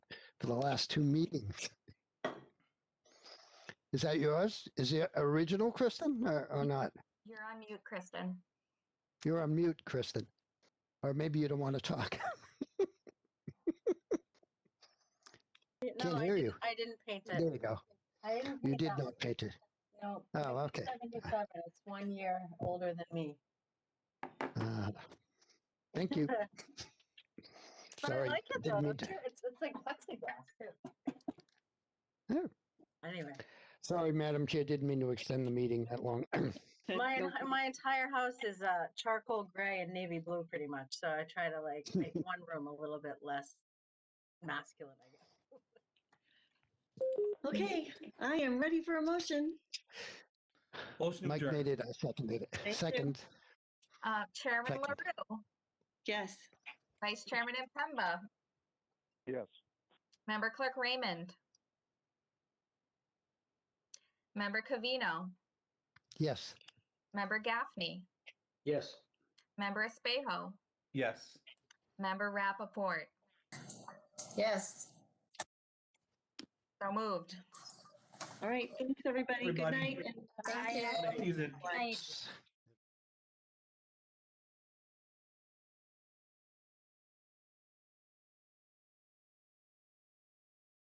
for the last two meetings. Is that yours? Is it original, Kristen, or, or not? You're on mute, Kristen. You're on mute, Kristen. Or maybe you don't want to talk. No, Can't I hear didn't- you. I didn't paint There it. you go. I didn't You paint did that. not paint it. No. Oh, okay. Seventy-seven, it's one year older than me. Uh, Thank you. But I Sorry, like it though, didn't mean it's, to- it's it's like plexiglass too. Yeah. Anyway, Sorry, Madam Chair, didn't mean to extend the meeting that long. my, en- my entire house is uh charcoal gray and navy blue pretty much, so I try to like make one room a little bit less masculine, I guess. Okay, I am ready for a motion. Motion to Mike adjourn. made it, I seconded you. it. Second, Uh, Chairman Second. LaRue, Yes, Vice Chairman Impemba, Yes. Member Clerk Raymond, Member Cavino, yes. Member Gaffney, Yes. Member Espejo, Yes. Member Rappaport. Yes. So moved. all right, thanks, everybody. Good Everybody. night. and- Thank you. Easy. Night.